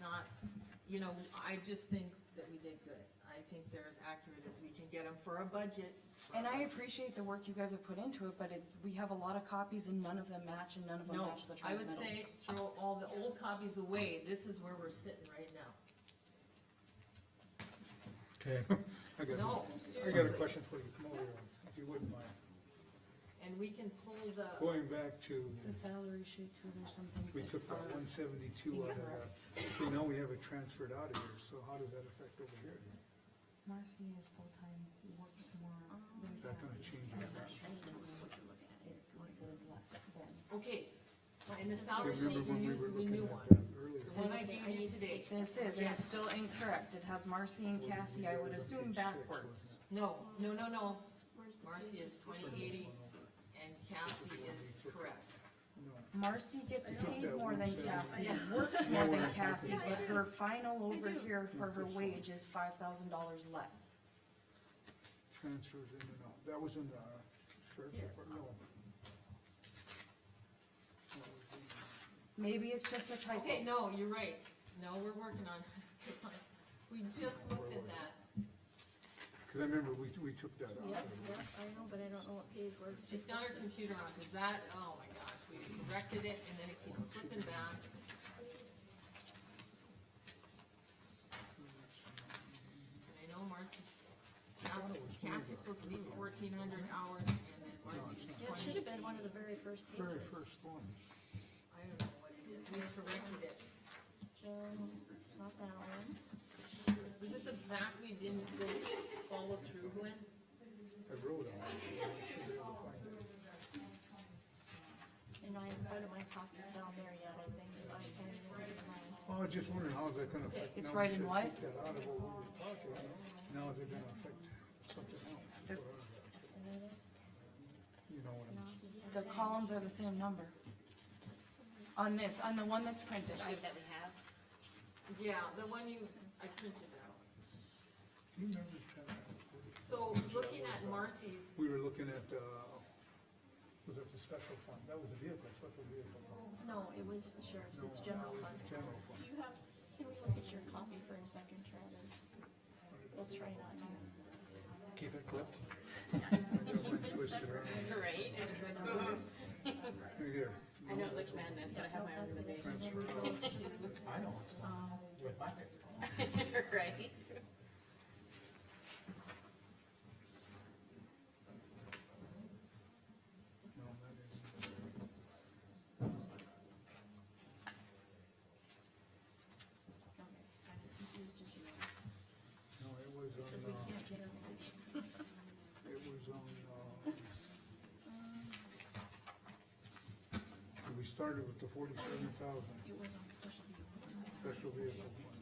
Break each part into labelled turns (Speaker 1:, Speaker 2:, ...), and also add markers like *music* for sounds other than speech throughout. Speaker 1: not, you know, I just think that we did good. I think they're as accurate as we can get them for a budget.
Speaker 2: And I appreciate the work you guys have put into it, but it, we have a lot of copies and none of them match and none of them
Speaker 1: No,
Speaker 2: match the
Speaker 1: I would
Speaker 2: transmittals.
Speaker 1: say throw all the old copies away, this is where we're sitting right now.
Speaker 3: Okay, I got,
Speaker 1: No,
Speaker 3: I got a
Speaker 1: seriously,
Speaker 3: question for you, come over here, if you wouldn't mind.
Speaker 1: and we can pull the,
Speaker 3: Going back to,
Speaker 2: The salary sheet too, there's some things
Speaker 3: we
Speaker 2: that
Speaker 3: took
Speaker 2: are-
Speaker 3: that one seventy-two out of that, we know we have it transferred out of here, so how does that affect over here?
Speaker 2: Marcy is full-time, works more. than
Speaker 3: Is that gonna
Speaker 2: Cassie.
Speaker 3: change anything?
Speaker 2: It's listed as less than.
Speaker 1: okay, and the
Speaker 3: I
Speaker 1: salary sheet, you
Speaker 3: Remember when we
Speaker 1: use
Speaker 3: were
Speaker 1: the
Speaker 3: looking
Speaker 1: new
Speaker 3: at
Speaker 1: one,
Speaker 3: that earlier?
Speaker 1: the one I gave you today.
Speaker 2: This is, and it's still incorrect, it has Marcy and Cassie, I would assume backwards.
Speaker 1: No, no, no, no, Marcy is twenty eighty and Cassie is correct.
Speaker 2: Marcy gets
Speaker 3: You took
Speaker 2: paid
Speaker 3: that
Speaker 2: more
Speaker 3: one
Speaker 2: than
Speaker 3: seven.
Speaker 2: Cassie,
Speaker 1: Yeah.
Speaker 2: *laughs*
Speaker 3: *laughs*
Speaker 2: works more
Speaker 3: Yeah,
Speaker 2: than
Speaker 3: I
Speaker 2: Cassie,
Speaker 1: do.
Speaker 2: but her final over
Speaker 4: I do.
Speaker 2: here for her
Speaker 3: Not this
Speaker 2: wage is five thousand dollars less.
Speaker 3: Transfers in and out, that was in the sheriff's
Speaker 1: Here.
Speaker 3: department, no. That was in-
Speaker 2: Maybe it's just a typo.
Speaker 1: Okay, no, you're right, no, we're working on, it. *laughs* 'Cause I- we just looked at that,
Speaker 3: Cause I remember we, we took that out.
Speaker 4: Yep, yep, I know, but I don't know what page we're.
Speaker 1: she's got her computer on, cause that, oh my gosh, we corrected it and then it keeps slipping back. And I know Marcy's, Cass- Cassie's supposed to be fourteen hundred hours and then Marcy's
Speaker 4: Yeah, it
Speaker 1: twenty.
Speaker 4: should have been one of the very first
Speaker 3: Very
Speaker 4: pages.
Speaker 3: first one.
Speaker 1: I don't know what it is, we corrected it.
Speaker 4: Joan, not that one.
Speaker 1: Was it the fact we didn't go follow through, Gwen?
Speaker 3: I wrote on it. Should be able to find it.
Speaker 4: And I, part of my copy's down there yet, I think, so I can't even read mine.
Speaker 3: Well, I was just wondering, how's that gonna affect?
Speaker 2: It's
Speaker 3: now we
Speaker 2: right in
Speaker 3: should
Speaker 2: what?
Speaker 3: take that out of what we were talking about. Now is it gonna affect something else?
Speaker 2: The-
Speaker 4: Estimated,
Speaker 3: You know what I'm,
Speaker 4: not the same.
Speaker 2: The columns are the same number. On this, on the one that's printed, I,
Speaker 5: that we have?
Speaker 1: Yeah, the one you, I printed out.
Speaker 3: you remember that?
Speaker 1: So looking at Marcy's,
Speaker 3: We were looking at, uh, was it the special fund? That was a vehicle, special vehicle fund.
Speaker 4: No, it was the sheriff's,
Speaker 3: No,
Speaker 4: it's general
Speaker 3: that was
Speaker 4: fund.
Speaker 3: General
Speaker 4: Do
Speaker 3: fund.
Speaker 4: you have, can we look at your copy for a second, Travis? We'll try not to. use it.
Speaker 3: Keep it
Speaker 4: *laughs*
Speaker 3: clipped. Twisted around.
Speaker 1: *laughs*
Speaker 5: Right, it was like,
Speaker 3: Right here.
Speaker 5: I know it looks madness, but I have my organization,
Speaker 3: Transfer out.
Speaker 6: I know, it's with my
Speaker 1: *laughs*
Speaker 6: pick.
Speaker 5: right?
Speaker 3: No, that is-
Speaker 4: Okay, I'm as confused as you are.
Speaker 3: No, it was
Speaker 4: Because
Speaker 3: on,
Speaker 4: we
Speaker 3: uh,
Speaker 4: can't get her.
Speaker 3: it was on, uh,
Speaker 4: Um,
Speaker 3: We started with the forty-seven thousand
Speaker 4: It was on special meeting.
Speaker 3: special vehicle fund. Okay,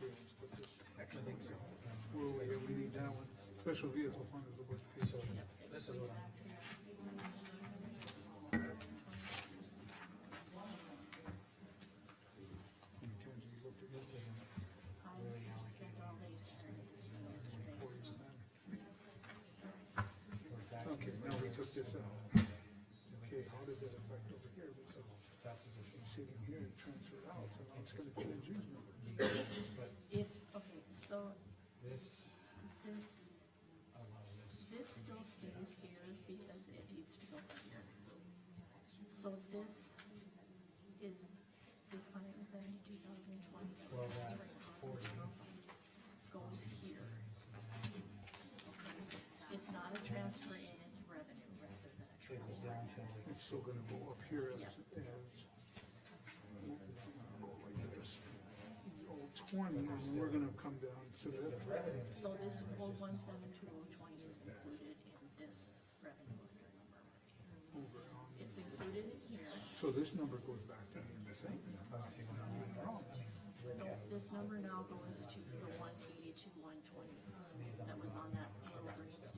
Speaker 3: let's put this back. We're over here, we need that one. Special vehicle fund is the worst piece.
Speaker 6: This is what I'm.
Speaker 3: How many times have you looked at this? Okay, now we took this out. Okay, how does that affect over here? This is sitting here and transferred out, so now it's gonna change these numbers.
Speaker 4: If, okay, so
Speaker 6: This,
Speaker 4: this,
Speaker 6: I love this.
Speaker 4: this still stays here because it needs to go here. So this is, this hundred and seventy-two thousand twenty
Speaker 6: Well, that forty.
Speaker 4: goes here. It's not a transfer in, it's revenue rather than a
Speaker 6: Trickles down
Speaker 4: transfer.
Speaker 6: to like,
Speaker 3: It's still gonna go up here as, as. It's gonna go like this. Oh, twenty, and we're gonna come down to that.
Speaker 4: So this four one seven two oh twenty is included in this revenue under number.
Speaker 3: over on-
Speaker 4: It's included in here,
Speaker 3: So this number goes back to being the same.
Speaker 4: so this number now goes to the one eighty-two, one twenty that was on that little green